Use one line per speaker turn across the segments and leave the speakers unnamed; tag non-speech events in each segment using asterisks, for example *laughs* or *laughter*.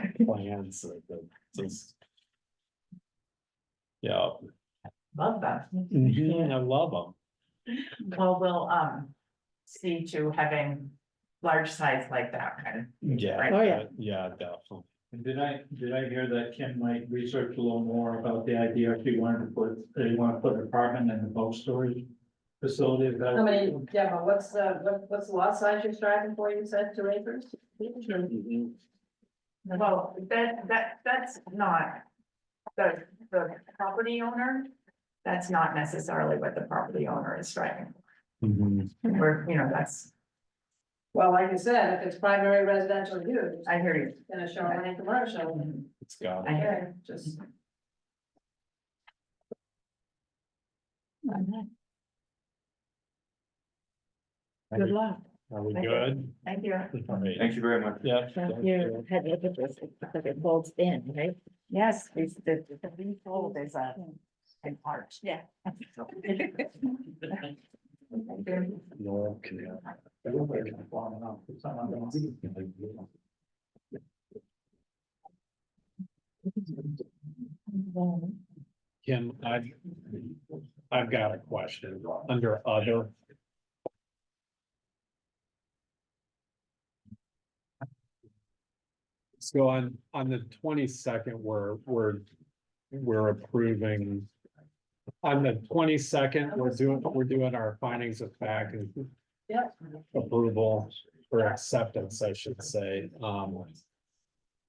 *laughs*
plans, like the, just. Yeah,
Love that.
Mm-hmm.
Mhm, I love them.
Well, we'll, um, see to having large size like that kind of.
Yeah.
Right.
Oh, yeah.
uh, Yeah, definitely.
And did I, did I hear that Kim might research a little more about the idea if you wanted to put, they want to put an apartment in the bulk storage facility? is that-
How many, Deborah, what's the, what, what's the lot size you're striving for, you said, two acres?
Well, that, that, that's not the, the property owner. That's not necessarily what the property owner is striving,
Mm-hmm.
Mhm.
for.
Hmm.
or, you know, that's,
Well, like you said, if it's primary residential use,
I hear you.
and it's showing any commercial,
It's got,
I hear
okay, just.
you.
Good luck.
are we good?
Thank you.
All right.
Thank you very much.
Yeah.
So you had to look at this because it folds in, right?
Yes, the, the, the leasehold is a, an arch. *laughs* Yeah.
No, okay, yeah. Kim, I've, I've got a question under other. So on, on the twenty-second, we're, we're, we're approving. On the twenty-second, we're doing, we're doing our findings of fact and
Yep.
approval or acceptance, I should say, um.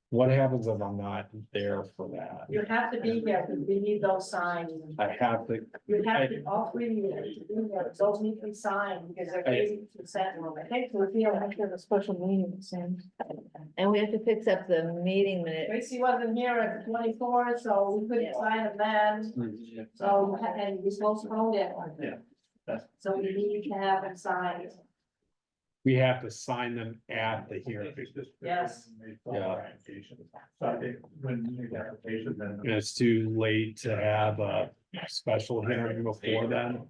What happens if I'm not there for that?
You have to be here, because we need those signs,
I have to,
you have to, all three of you have to be here, those need to be signed, because they're
I-
crazy to send them, I think we're feeling like there's a special meeting, Sam.
And we have to fix up the meeting minute.
Tracy wasn't here at the twenty-fourth, so we couldn't sign them then. So, and we postponed it.
Yeah, that's-
So we need to have it signed.
we have to sign them at the hearing.
Yes.
Yeah.
So I think when you make the application, then.
And it's too late to have a special hearing before then.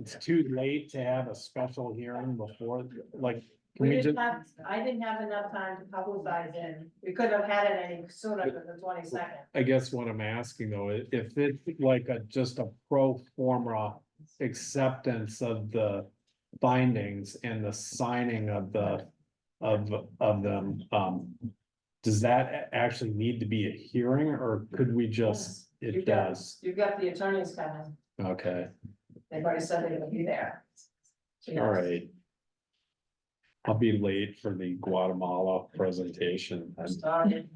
It's too late to have a special hearing before, like, can
We
we just,
didn't have, I didn't have enough time to publicize it. We couldn't have had it any sooner than the twenty second.
I guess what I'm asking though, i- if it's like a, just a pro forma acceptance of the findings and the signing of the, of, of them, um, does that a- actually need to be a hearing or could we just,
You
it
got-
does?
You've got the attorneys coming.
Okay,
They've already said they're gonna be there. Yes.
all right. I'll be late for the Guatemala presentation.
I'm sorry.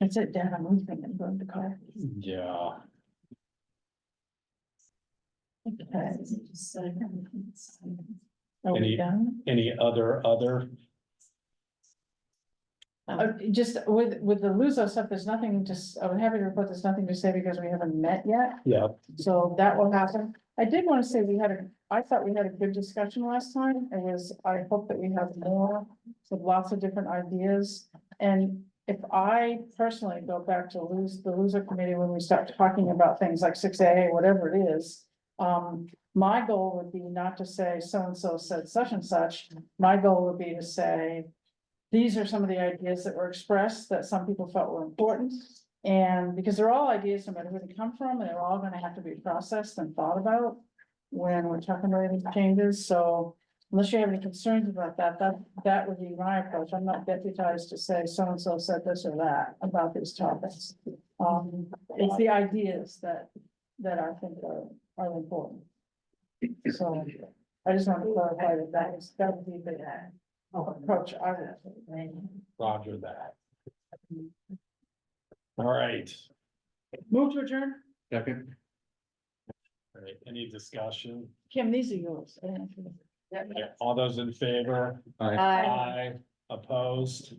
That's it, Dan, I'm moving and going to car.
*laughs* Hmm. Yeah.
Are
Any-
done?
Any other, other?
Uh, just with, with the Luso stuff, there's nothing just, I'm happy to report there's nothing to say because we haven't met yet,
Yeah,
so that will happen. I did wanna say we had a, I thought we had a good discussion last time, it was, I hope that we have more with lots of different ideas. And if I personally go back to lose, the loser committee, when we start talking about things like six A, whatever it is. Um, my goal would be not to say so-and-so said such and such, my goal would be to say. These are some of the ideas that were expressed that some people felt were important. And because they're all ideas, no matter where they come from, and they're all gonna have to be processed and thought about. When we're talking about any changes, so unless you have any concerns about that, that, that would be my approach. I'm not deputized to say so-and-so said this or that about these topics. Um, it's the ideas that, that I think are, are important. So I just want to clarify that that is, that would be the approach I would.
Roger that. All right,
Move to adjourn?
second. All right, any discussion?
Kim, these are yours. I didn't have to-
All those in favor?
Aye.
Aye, opposed,